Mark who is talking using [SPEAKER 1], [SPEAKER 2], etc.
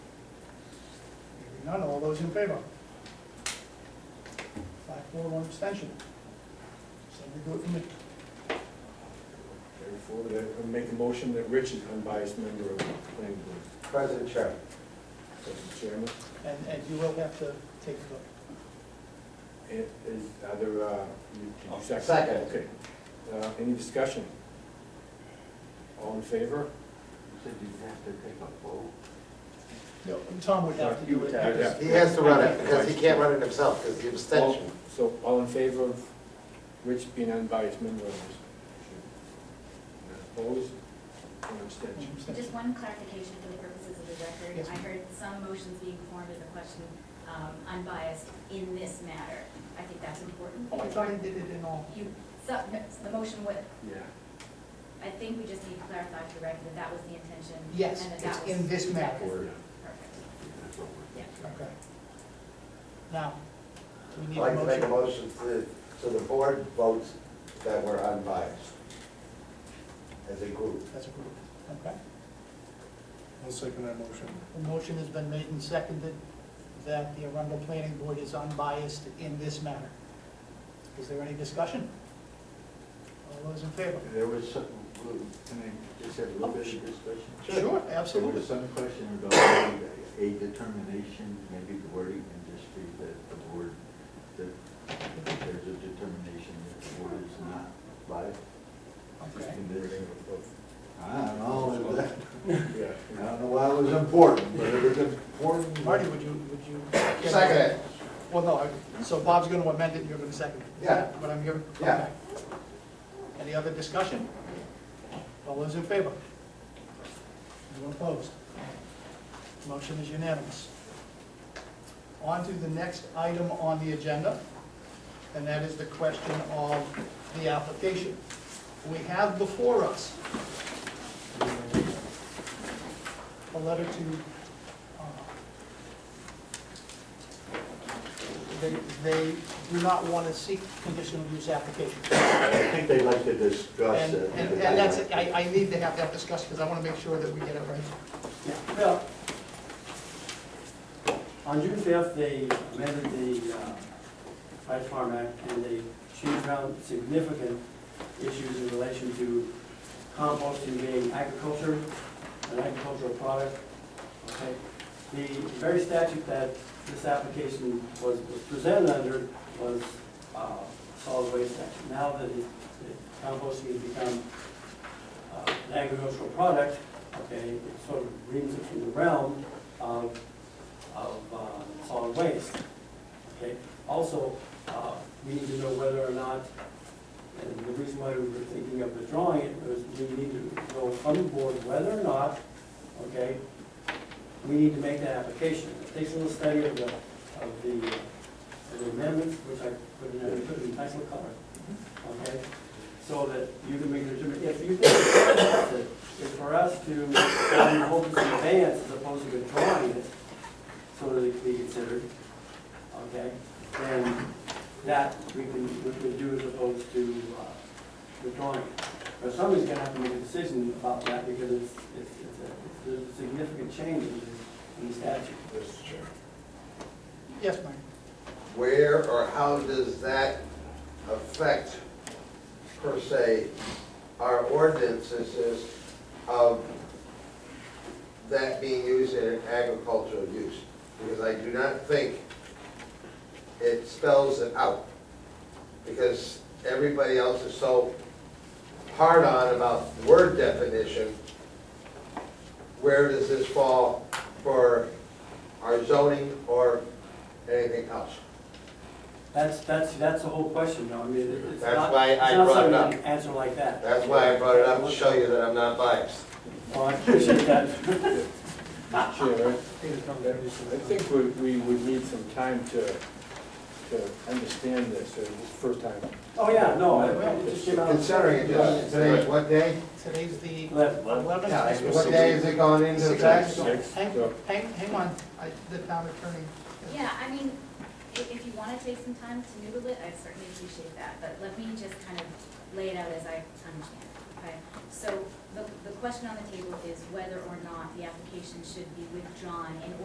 [SPEAKER 1] Hearing none, all those in favor? Five, four, one abstention. Somebody do it for me.
[SPEAKER 2] Carry forward, I- I make a motion that Rich is unbiased member of the planning board.
[SPEAKER 3] President Chair,
[SPEAKER 2] Mr. Chairman,
[SPEAKER 1] And, and you will have to take a vote.
[SPEAKER 2] it is, are there, uh, you- did you second?
[SPEAKER 3] Second.
[SPEAKER 2] Okay. Uh, Any discussion? All in favor?
[SPEAKER 4] You said you have to take a vote.
[SPEAKER 1] No, Tom would have to do it.
[SPEAKER 4] You would have
[SPEAKER 3] he has to run it, because he can't run it himself, because the abstention.
[SPEAKER 2] All- So all in favor of Rich being unbiased member of this? Opposed? One abstention.
[SPEAKER 5] Just one clarification for the purposes of the record.
[SPEAKER 1] Yes,
[SPEAKER 5] I
[SPEAKER 1] ma'am.
[SPEAKER 5] heard some motions being formed as a question um, unbiased in this matter. I think that's important.
[SPEAKER 1] Oh, I thought I did it in all.
[SPEAKER 5] You, so- the motion would,
[SPEAKER 2] Yeah.
[SPEAKER 5] I think we just need to clarify for the record that that was the intention.
[SPEAKER 1] Yes,
[SPEAKER 5] and that
[SPEAKER 1] it's
[SPEAKER 5] that was-
[SPEAKER 1] in this matter.
[SPEAKER 2] Word.
[SPEAKER 5] Perfect.
[SPEAKER 4] That's what we're-
[SPEAKER 1] Okay. Now, do we
[SPEAKER 3] I'd
[SPEAKER 1] need a
[SPEAKER 3] like to make a
[SPEAKER 1] motion?
[SPEAKER 3] motion to, so the board votes that we're unbiased as a group.
[SPEAKER 1] That's approved, okay?
[SPEAKER 6] I'll second that motion.
[SPEAKER 1] The motion has been made and seconded that the Arundel Planning Board is unbiased in this matter. Is there any discussion? All those in favor?
[SPEAKER 4] There was some, little- can I just have a little bit of discussion?
[SPEAKER 1] Sure,
[SPEAKER 4] There
[SPEAKER 1] absolutely.
[SPEAKER 4] was some question about a determination, maybe the wording can just be that the board, that there's a determination that the board is not live.
[SPEAKER 1] Okay.
[SPEAKER 4] I don't know, ah, that-
[SPEAKER 2] Yeah.
[SPEAKER 4] I don't know why it was important, but it was important.
[SPEAKER 1] Marty, would you, would you?
[SPEAKER 3] Second it.
[SPEAKER 1] Well, no, I- so Bob's going to amend it, and you're going to second it. Is
[SPEAKER 3] Yeah.
[SPEAKER 1] that What I'm hearing?
[SPEAKER 3] Yeah.
[SPEAKER 1] Okay. Any other discussion? All those in favor? Anyone opposed? Motion is unanimous. On to the next item on the agenda, and that is the question of the application. We have before us a letter to uh, they, they do not want to seek conditional use application.
[SPEAKER 4] I think they'd like to discuss
[SPEAKER 1] And,
[SPEAKER 4] it.
[SPEAKER 1] and and that's, it. I, I need to have that discussed because I want to make sure that we get it right.
[SPEAKER 7] Well, on June fifth, they amended the uh, High Farm Act, and they, she found significant issues in relation to composting being agriculture, an agricultural product. Okay, the very statute that this application was, was presented under was, uh, solid waste statute. Now that it, that composting has become uh, an agricultural product, okay, it sort of brings it from the realm of, of uh, solid waste. Okay, also, uh, we need to know whether or not, and the reason why we were thinking of withdrawing it was we need to know from the board whether or not, okay, we need to make that application. It takes a little study of the, of the, of the amendments, which I put in, I put in nice little color, okay? so that you can make the determination. If you think it's worth it, it's for us to um, hold this in advance as opposed to withdrawing it, so that it can be considered, okay? Then that we can, we can do as opposed to uh, withdrawing it. But somebody's gonna have to make a decision about that because it's, it's, it's a, it's a significant change in the- in the statute.
[SPEAKER 3] Mr. Chair.
[SPEAKER 1] Yes, Mike?
[SPEAKER 3] Where or how does that affect, per se, our ordinances is of that being used in an agricultural use? Because I do not think it spells it out. Because everybody else is so hard on about word definition. Where does this fall for our zoning or anything else?
[SPEAKER 7] That's, that's, that's the whole question, though. I mean, it- it's
[SPEAKER 3] That's
[SPEAKER 7] not,
[SPEAKER 3] why
[SPEAKER 7] it's
[SPEAKER 3] I
[SPEAKER 7] not
[SPEAKER 3] brought it
[SPEAKER 7] something
[SPEAKER 3] up.
[SPEAKER 7] you can answer like that.
[SPEAKER 3] That's why I brought it up, to show you that I'm not biased.
[SPEAKER 7] Well, I appreciate that.
[SPEAKER 2] Chair, I I think we, we would need some time to, to understand this, uh, this first time.
[SPEAKER 7] Oh, yeah, no, I- it just came out.
[SPEAKER 3] Considering it just, today's what day?
[SPEAKER 1] Today's the
[SPEAKER 7] Eleven.
[SPEAKER 1] eleventh.
[SPEAKER 3] Yeah, What day is it going into effect?
[SPEAKER 2] Six,
[SPEAKER 1] Hang,
[SPEAKER 2] so-
[SPEAKER 1] hang, hang on, I, the town attorney.
[SPEAKER 5] Yeah, I mean, if, if you wanna take some time to noodle it, I certainly appreciate that, but let me just kind of lay it out as I understand it, okay? So, the, the question on the table is whether or not the application should be withdrawn in